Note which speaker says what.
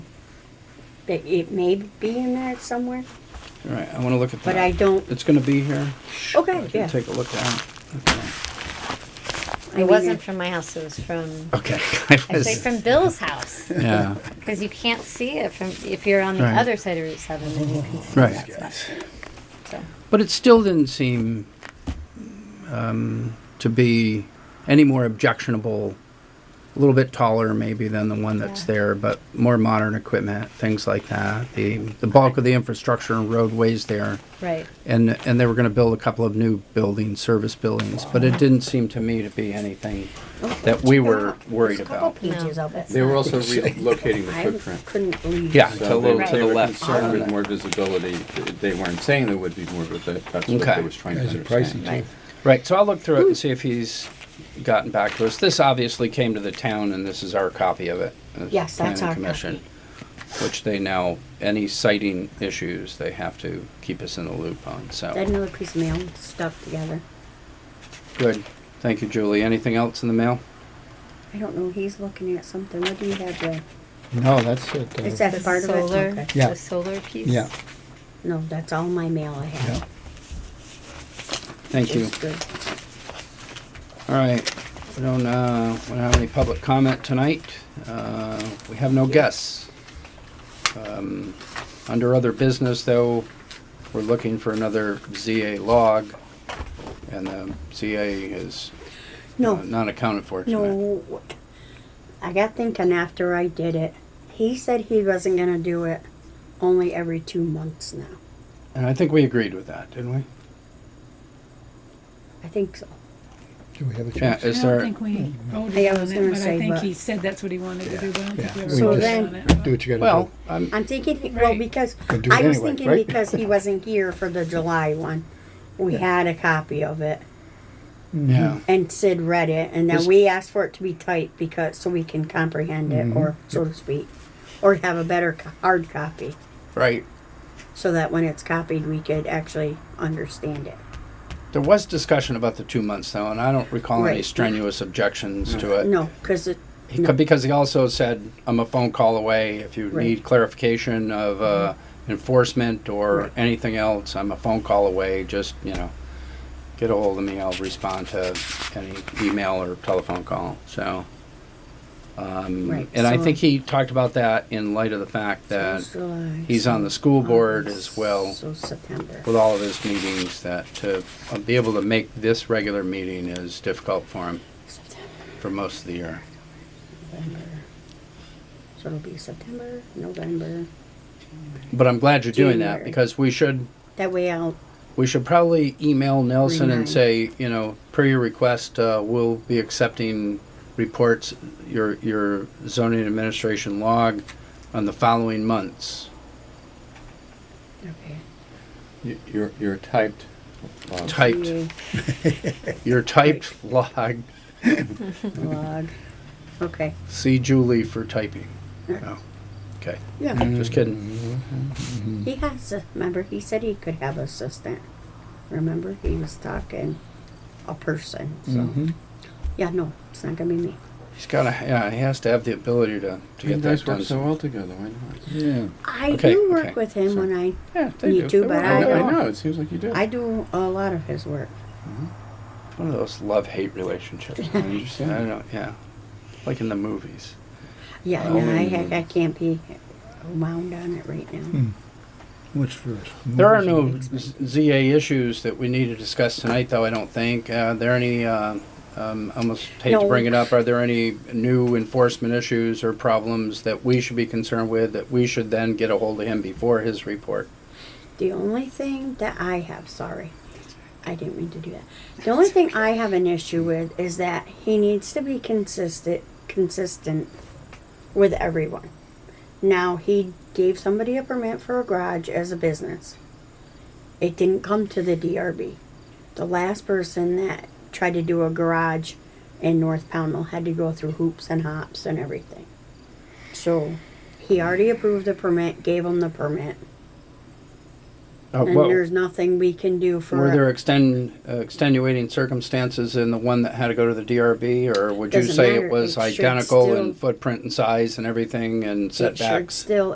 Speaker 1: that it may be in there somewhere,
Speaker 2: All right, I want to look at that.
Speaker 1: but I don't,
Speaker 2: It's going to be here. I
Speaker 1: okay,
Speaker 2: can
Speaker 1: yeah.
Speaker 2: take a look at it.
Speaker 1: I
Speaker 3: It
Speaker 1: mean,
Speaker 3: wasn't from my house. It was from
Speaker 2: Okay. Okay. I
Speaker 3: actually
Speaker 2: was-
Speaker 3: from Bill's house
Speaker 2: Yeah,
Speaker 3: because you can't see it from if you're on the
Speaker 2: Right.
Speaker 3: other side of Route Seven. Then you can see
Speaker 2: right.
Speaker 3: that stuff. So
Speaker 2: But it still didn't seem um, to be any more objectionable. A little bit taller, maybe, than the one that's
Speaker 3: Yeah.
Speaker 2: there, but more modern equipment, things like that. The the bulk of the infrastructure and roadways there,
Speaker 3: right.
Speaker 2: and and they were going to build a couple of new buildings, service buildings. But it didn't seem to me to be anything
Speaker 1: Oh,
Speaker 2: that we were worried
Speaker 1: There's a couple
Speaker 2: about.
Speaker 1: pages of it.
Speaker 4: They were also relocating the
Speaker 1: I
Speaker 4: footprint.
Speaker 1: couldn't believe.
Speaker 2: Yeah.
Speaker 4: So they
Speaker 3: Right. to
Speaker 4: they
Speaker 2: the
Speaker 4: were
Speaker 2: left.
Speaker 4: concerned with more visibility. They weren't saying there would be more, but that- that's what
Speaker 2: Okay.
Speaker 4: they was trying to
Speaker 5: Guys are pricey,
Speaker 4: understand.
Speaker 3: Right.
Speaker 5: too.
Speaker 2: Right, so I'll look through it
Speaker 1: Hmm.
Speaker 2: and see if he's gotten back to us. This obviously came to the town, and this is our copy of it. uh,
Speaker 1: Yes, that's
Speaker 2: Planning
Speaker 1: our
Speaker 2: Commission, Which they now, any citing issues, they have to keep us in the loop on,
Speaker 1: Got
Speaker 2: so.
Speaker 1: another piece of mail stuck together.
Speaker 2: Good, thank you, Julie. Anything else in the mail?
Speaker 1: I don't know, he's looking at something, what do you have there?
Speaker 5: No, that's it. uh,
Speaker 1: Is that
Speaker 3: The
Speaker 1: part of it?
Speaker 3: solar,
Speaker 1: Okay.
Speaker 5: Yeah.
Speaker 3: the solar piece.
Speaker 5: Yeah,
Speaker 1: No, that's all my mail I
Speaker 5: yeah.
Speaker 1: have.
Speaker 2: Thank you.
Speaker 1: It's good.
Speaker 2: All right, we don't, uh, we don't have any public comment tonight. Uh, we have no guests. Um, Under other business, though, we're looking for another ZA log, and the ZA is uh,
Speaker 1: No,
Speaker 2: not accounted for tonight.
Speaker 1: no, I got thinking after I did it, he said he wasn't gonna do it only every two months now.
Speaker 2: And I think we agreed with that, didn't we?
Speaker 1: I think so.
Speaker 5: Do we have a
Speaker 2: Yeah,
Speaker 5: choice?
Speaker 2: is
Speaker 6: I
Speaker 2: there,
Speaker 6: don't think we voted
Speaker 1: Yeah, I
Speaker 6: on
Speaker 1: was
Speaker 6: it,
Speaker 1: gonna
Speaker 6: but
Speaker 1: say,
Speaker 6: I think
Speaker 1: but-
Speaker 6: he said that's what he wanted to do, but I don't
Speaker 5: Yeah,
Speaker 6: think we
Speaker 5: we
Speaker 6: ever voted
Speaker 1: just-
Speaker 6: on it.
Speaker 5: Do what you gotta
Speaker 2: well,
Speaker 5: do.
Speaker 2: I'm,
Speaker 1: I'm thinking, well,
Speaker 6: Right.
Speaker 1: because,
Speaker 5: Could do it
Speaker 1: I was
Speaker 5: anyway,
Speaker 1: thinking
Speaker 5: right?
Speaker 1: because he wasn't here for the July one. We had a copy of it
Speaker 2: yeah,
Speaker 1: and Sid read it and then
Speaker 2: Was-
Speaker 1: we asked for it to be tight because, so we can comprehend
Speaker 2: Mm-hmm.
Speaker 1: it or so to speak. Or have a better co- hard copy
Speaker 2: right.
Speaker 1: so that when it's copied, we could actually understand it.
Speaker 2: There was discussion about the two months, though, and I don't recall any
Speaker 1: Right.
Speaker 2: strenuous objections to it.
Speaker 1: No, cause it,
Speaker 2: He co- Because he also said, I'm a phone call away. If you
Speaker 1: Right. Mm-hmm.
Speaker 2: need clarification of uh, enforcement or
Speaker 1: Right.
Speaker 2: anything else, I'm a phone call away. Just, you know, get a hold of me. I'll respond to any email or telephone call. So, um,
Speaker 1: Right,
Speaker 2: and I
Speaker 1: so-
Speaker 2: think he talked about that in light of the fact that he's on the school board as well
Speaker 1: So September.
Speaker 2: with all of his meetings that to uh, be able to make this regular meeting is difficult for him for most of the year.
Speaker 1: November. So it'll be September, November.
Speaker 2: But I'm glad you're doing that
Speaker 1: January.
Speaker 2: because we should
Speaker 1: That way I'll,
Speaker 2: we should probably email Nelson and
Speaker 1: Remind.
Speaker 2: say, you know, per your request, uh, we'll be accepting reports, your, your zoning administration log on the following months.
Speaker 1: okay.
Speaker 4: You- You're, you're typed. uh,
Speaker 2: Typed, your typed log,
Speaker 1: Log. Okay.
Speaker 2: see Julie for typing. Oh, okay,
Speaker 1: Yeah,
Speaker 2: just
Speaker 4: Mm-hmm.
Speaker 2: kidding.
Speaker 1: he has, a- remember, he said he could have assistant. Remember, he was talking a person,
Speaker 2: Mm-hmm.
Speaker 1: so. Yeah, no, it's not gonna be me.
Speaker 2: He's gotta, yeah, he has to have the ability to, to
Speaker 4: You
Speaker 2: get that
Speaker 4: guys work
Speaker 2: done.
Speaker 4: so well together, why not?
Speaker 5: Yeah.
Speaker 1: I
Speaker 2: Okay,
Speaker 1: do
Speaker 2: okay,
Speaker 1: work with him when I,
Speaker 2: Yeah, they
Speaker 1: Me
Speaker 2: do.
Speaker 1: too,
Speaker 2: They
Speaker 1: but
Speaker 2: work
Speaker 1: I
Speaker 2: well.
Speaker 4: know,
Speaker 1: don't-
Speaker 4: it seems like you do.
Speaker 1: I do a lot of his work.
Speaker 2: One of those love-hate relationships. I
Speaker 4: understand.
Speaker 2: don't know, yeah, like in the movies.
Speaker 1: Yeah, no, I,
Speaker 2: Oh.
Speaker 1: I- I can't be wound on it right now.
Speaker 5: What's first?
Speaker 2: There are
Speaker 5: Movies?
Speaker 2: no Z- ZA issues that we need to discuss tonight, though, I don't think. Uh, Are there any, uh, um, I almost hate to
Speaker 1: No.
Speaker 2: bring it up, are there any new enforcement issues or problems that we should be concerned with that we should then get a hold of him before his report?
Speaker 1: The only thing that I have, sorry, I didn't mean to do that. The only thing I have an issue with is that he needs to be consistent, consistent with everyone. Now he gave somebody a permit for a garage as a business. It didn't come to the DRB. The last person that tried to do a garage in North Poundal had to go through hoops and hops and everything. So he already approved the permit, gave him the permit.
Speaker 2: Uh,
Speaker 1: And
Speaker 2: what-
Speaker 1: there's nothing we can do for
Speaker 2: Were
Speaker 1: it.
Speaker 2: there extend, uh, extenuating circumstances in the one that had to go to the DRB, or would you
Speaker 1: Doesn't
Speaker 2: say
Speaker 1: matter,
Speaker 2: it was
Speaker 1: it should
Speaker 2: identical
Speaker 1: still-
Speaker 2: in footprint and size and everything and
Speaker 1: It should
Speaker 2: setbacks?
Speaker 1: still